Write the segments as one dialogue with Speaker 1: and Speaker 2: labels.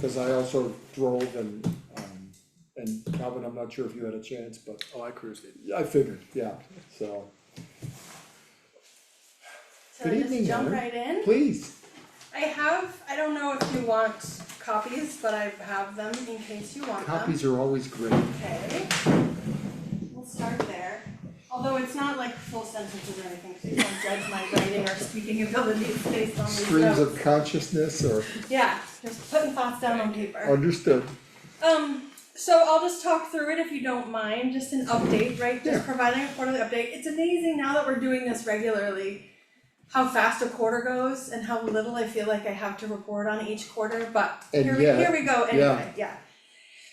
Speaker 1: cause I also drove and, um, and Calvin, I'm not sure if you had a chance, but
Speaker 2: Oh, I cruised it.
Speaker 1: I figured, yeah, so,
Speaker 3: So
Speaker 1: Good evening,
Speaker 3: just jump
Speaker 1: Heather.
Speaker 3: right in.
Speaker 1: please.
Speaker 3: I have, I don't know if you want copies, but I have them in case you want them.
Speaker 1: Copies are always great.
Speaker 3: Okay. We'll start there. Although it's not like full sentences or anything, so you don't judge my writing or speaking abilities based on these
Speaker 1: Streams
Speaker 3: notes.
Speaker 1: of consciousness are
Speaker 3: Yeah, just putting thoughts down on paper.
Speaker 1: understood.
Speaker 3: Um, so I'll just talk through it if you don't mind, just an update, right?
Speaker 1: Yeah.
Speaker 3: Just providing a quarterly update. It's amazing now that we're doing this regularly, how fast a quarter goes and how little I feel like I have to report on each quarter, but
Speaker 1: And
Speaker 3: here we,
Speaker 1: yet-
Speaker 3: here we go anyway, yeah.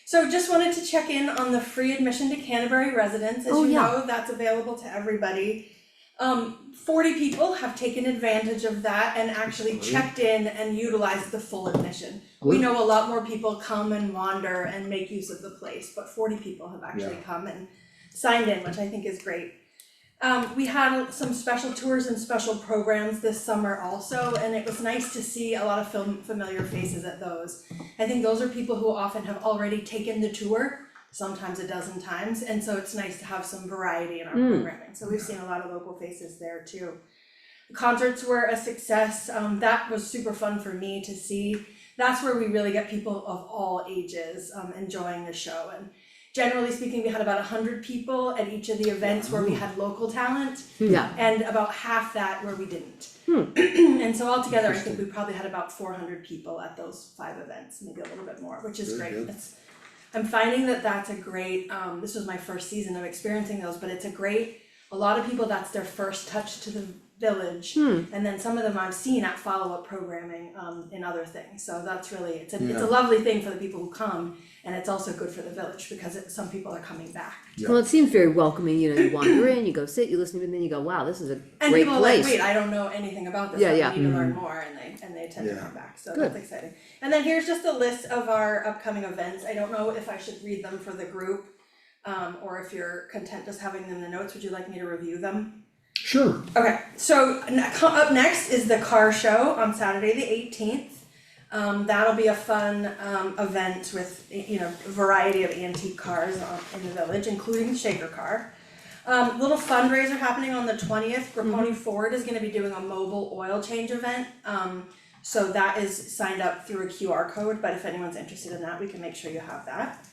Speaker 3: So just wanted to check in on the free admission to Canterbury residents, as
Speaker 4: Oh,
Speaker 3: you
Speaker 4: yeah.
Speaker 3: know, that's available to everybody. Um, forty people have taken advantage of that and actually
Speaker 1: Great.
Speaker 3: checked in and utilized the full admission. We
Speaker 1: Good.
Speaker 3: know a lot more people come and wander and make use of the place, but forty people have actually come and signed in, which I think is great. Um, we had some special tours and special programs this summer also, and it was nice to see a lot of film, familiar faces at those. I think those are people who often have already taken the tour, sometimes a dozen times, and so it's nice to have some variety in our
Speaker 4: Mm.
Speaker 3: programming, so we've seen a lot of local faces there too. Concerts were a success, um, that was super fun for me to see, that's where we really get people of all ages, um, enjoying the show and generally speaking, we had about hundred people at each of the events where we had local talent
Speaker 4: Yeah,
Speaker 3: and about half that where we didn't.
Speaker 4: Hmm.
Speaker 3: And so altogether, I think we probably had about four hundred people at those five events, maybe a little bit more, which is
Speaker 1: Very
Speaker 3: great.
Speaker 1: good.
Speaker 3: It's- I'm finding that that's a great, um, this was my first season of experiencing those, but it's a great, a lot of people, that's their first touch to the village.
Speaker 4: Hmm.
Speaker 3: And then some of them I've seen at follow-up programming, um, in other things, so that's really, it's a, it's
Speaker 1: Yeah.
Speaker 3: a lovely thing for the people who come. And it's also good for the village because it, some people are coming back.
Speaker 4: well, it seems very welcoming, you know, you wander in, you go sit, you listen to it, and then you go, wow, this is a
Speaker 3: And
Speaker 4: great
Speaker 3: people are like,
Speaker 4: place.
Speaker 3: wait, I don't know anything about this,
Speaker 4: Yeah,
Speaker 3: I
Speaker 4: yeah. Mm-hmm.
Speaker 3: need to learn more, and they, and they tend to
Speaker 1: Yeah.
Speaker 3: come back, so
Speaker 4: Good.
Speaker 3: that's exciting. And then here's just a list of our upcoming events, I don't know if I should read them for the group, um, or if you're content just having them in the notes, would you like me to review them?
Speaker 1: Sure,
Speaker 3: Okay, so ne- co- up next is the car show on Saturday the eighteenth. Um, that'll be a fun, um, event with, y- you know, a variety of antique cars on, in the village, including the shaker car. Um, little fundraiser happening on the twentieth, Grapponi Ford is gonna be doing a mobile oil change event. Um, so that is signed up through a QR code, but if anyone's interested in that, we can make sure you have that.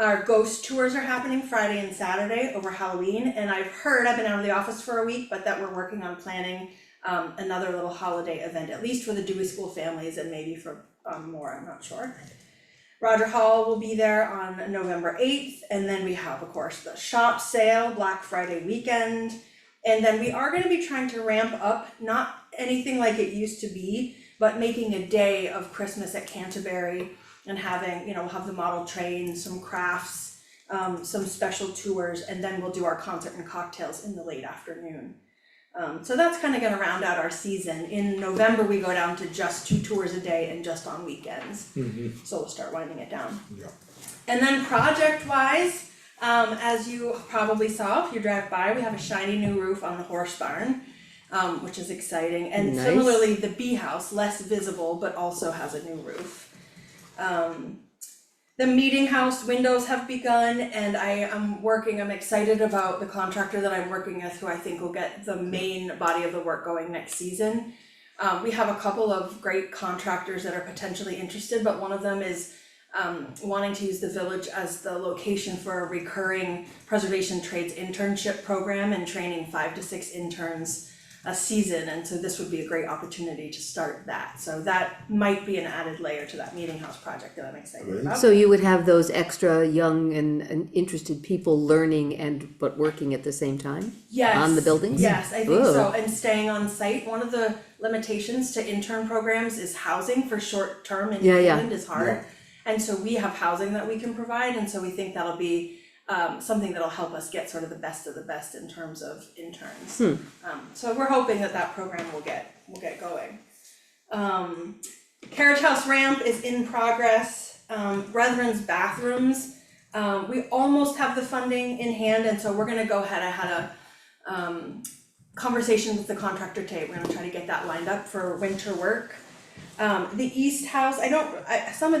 Speaker 3: Our ghost tours are happening Friday and Saturday over Halloween, and I've heard, I've been out of the office for a week, but that we're working on planning um, another little holiday event, at least for the Dewey School families and maybe for um, more, I'm not sure. Roger Hall will be there on November eighth, and then we have, of course, the shop sale, Black Friday weekend. And then we are gonna be trying to ramp up, not anything like it used to be, but making a day of Christmas at Canterbury and having, you know, we'll have the model train, some crafts, um, some special tours, and then we'll do our concert and cocktails in the late afternoon. Um, so that's kind of gonna round out our season. In November, we go down to just two tours a day and just on weekends so we'll start winding it down.
Speaker 1: Yeah.
Speaker 3: And then project wise, um, as you probably saw if you drive by, we have a shiny new roof on the horse barn. um, which is exciting, and
Speaker 4: Nice.
Speaker 3: similarly, the bee house, less visible, but also has a new roof. Um, the meeting house windows have begun and I am working, I'm excited about the contractor that I'm working with who I think will get the main body of the work going next season. Um, we have a couple of great contractors that are potentially interested, but one of them is um, wanting to use the village as the location for a recurring preservation trades internship program and training five to six interns a season, and so this would be a great opportunity to start that. So that might be an added layer to that meeting house project that I'm excited about.
Speaker 4: So you would have those extra young and, and interested people learning and, but working at the same time?
Speaker 3: Yes.
Speaker 4: on the buildings?
Speaker 3: Yes, I think so,
Speaker 4: Ooh.
Speaker 3: and staying on site, one of the limitations to intern programs is housing for short term in
Speaker 4: Yeah, yeah.
Speaker 3: England is hard. And so we have housing that we can provide, and so we think that'll be um something that'll help us get sort of the best of the best in terms of interns.
Speaker 4: Hmm.
Speaker 3: Um so we're hoping that that program will get, will get going. Um Carriage House ramp is in progress, um Brethren's bathrooms, um we almost have the funding in hand, and so we're gonna go ahead, I had a um conversation with the contractor today, we're gonna try to get that lined up for winter work. Um the east house, I don't, I, some of the